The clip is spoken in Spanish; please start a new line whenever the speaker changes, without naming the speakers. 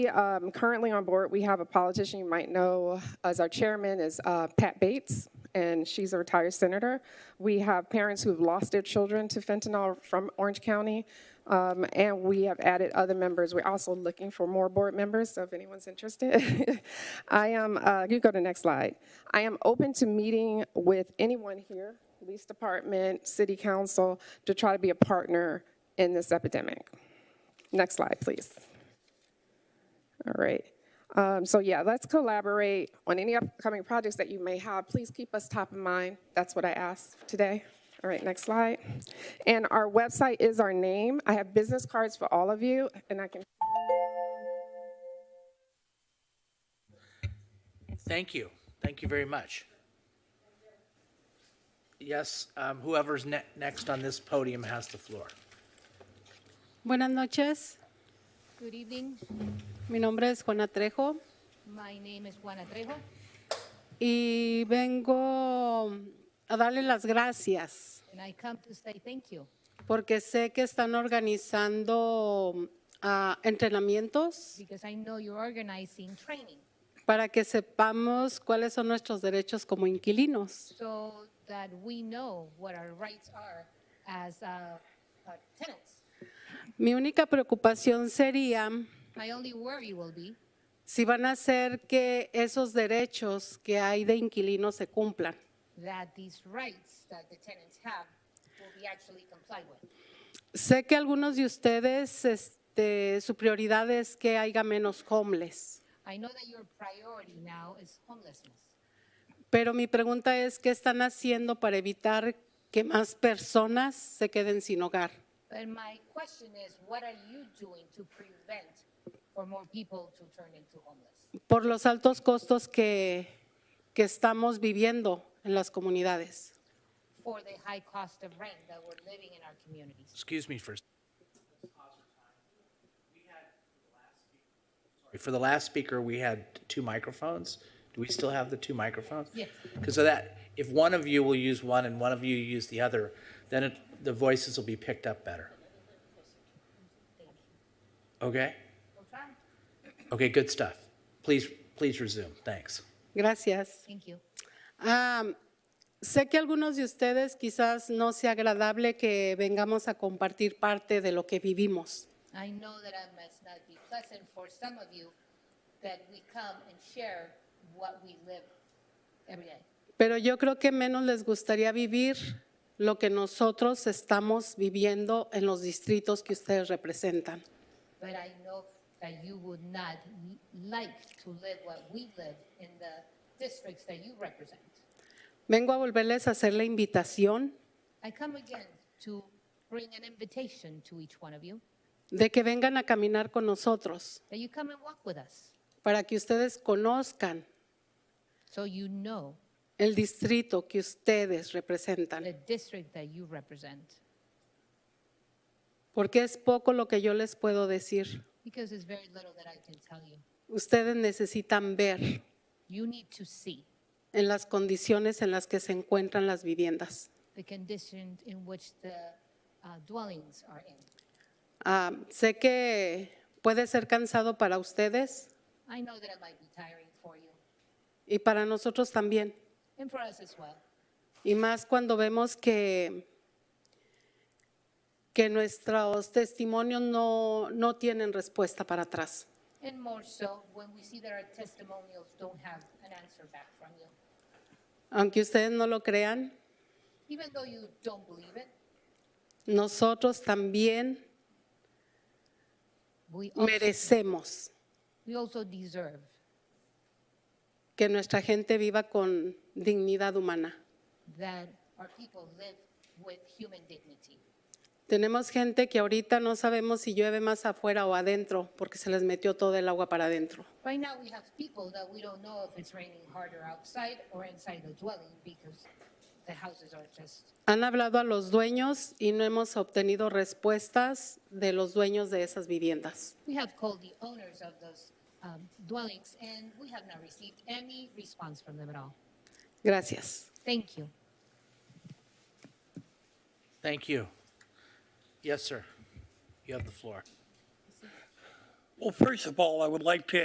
Um, Currently on board, we have a politician you might know as our chairman is uh, Pat Bates, and she's a retired senator. We have parents who've lost their children to fentanyl from Orange County, um, and we have added other members. We're also looking for more board members, so if anyone's interested. I am, uh, you go to the next slide. I am open to meeting with anyone here, police department, city council, to try to be a partner in this epidemic. Next slide, please. All right. Um, So yeah, let's collaborate on any upcoming projects that you may have. Please keep us top of mind. That's what I asked today. All right, next slide. And our website is our name. I have business cards for all of you, and I can
Thank you. Thank you very much. Yes, um, whoever's ne- next on this podium has the floor.
Buenas noches,
Good evening.
mi nombre es Juana Trejo
My name is Juana Trejo.
y vengo a darle las gracias
And I come to say thank you
porque sé que están organizando ah, entrenamientos
because I know you're organizing training
para que sepamos cuáles son nuestros derechos como inquilinos.
so that we know what our rights are as uh, uh, tenants.
Mi única preocupación sería
My only worry will be
si van a hacer que esos derechos que hay de inquilinos se cumplan.
that these rights that the tenants have will be actually complied with.
Sé que algunos de ustedes, este, su prioridad es que haya menos homeless.
I know that your priority now is homelessness.
Pero mi pregunta es, ¿qué están haciendo para evitar que más personas se queden sin hogar?
But my question is, what are you doing to prevent for more people to turn into homeless?
Por los altos costos que, que estamos viviendo en las comunidades.
for the high cost of rent that we're living in our communities.
Excuse me for. For the last speaker, we had two microphones. Do we still have the two microphones?
Yes.
Because of that, if one of you will use one and one of you use the other, then it, the voices will be picked up better. Okay? Okay, good stuff. Please, please resume. Thanks.
Gracias.
Thank you.
Ah, sé que algunos de ustedes quizás no sea agradable que vengamos a compartir parte de lo que vivimos.
I know that it must not be pleasant for some of you that we come and share what we live every day.
Pero yo creo que menos les gustaría vivir lo que nosotros estamos viviendo en los distritos que ustedes representan.
But I know that you would not like to live what we live in the districts that you represent.
Vengo a volverles a hacer la invitación
I come again to bring an invitation to each one of you
de que vengan a caminar con nosotros
that you come and walk with us
para que ustedes conozcan
so you know
el distrito que ustedes
the
representan,
district that you represent.
porque es poco lo que yo les puedo decir.
Because there's very little that I can tell you.
Ustedes necesitan ver
You need to see
en las condiciones en las que se encuentran las viviendas.
the condition in which the uh, dwellings are in.
Ah, sé que puede ser cansado para ustedes
I know that it might be tiring for you
y para nosotros también,
and for us as well.
y más cuando vemos que, que nuestros testimonios no, no tienen respuesta para atrás.
And more so when we see that our testimonials don't have an answer back from you.
Aunque ustedes no lo crean,
Even though you don't believe it,
nosotros también
we also,
merecemos
we also deserve
que nuestra gente viva con dignidad humana.
that our people live with human dignity.
Tenemos gente que ahorita no sabemos si llueve más afuera o adentro porque se les metió todo el agua para adentro.
Right now, we have people that we don't know if it's raining harder outside or inside the dwelling because the houses are just
Han hablado a los dueños y no hemos obtenido respuestas de los dueños de esas viviendas.
We have called the owners of those um, dwellings, and we have not received any response from them at all.
Gracias.
Thank you.
Thank you. Yes, sir. You have the floor.
Well, first of all, I would like to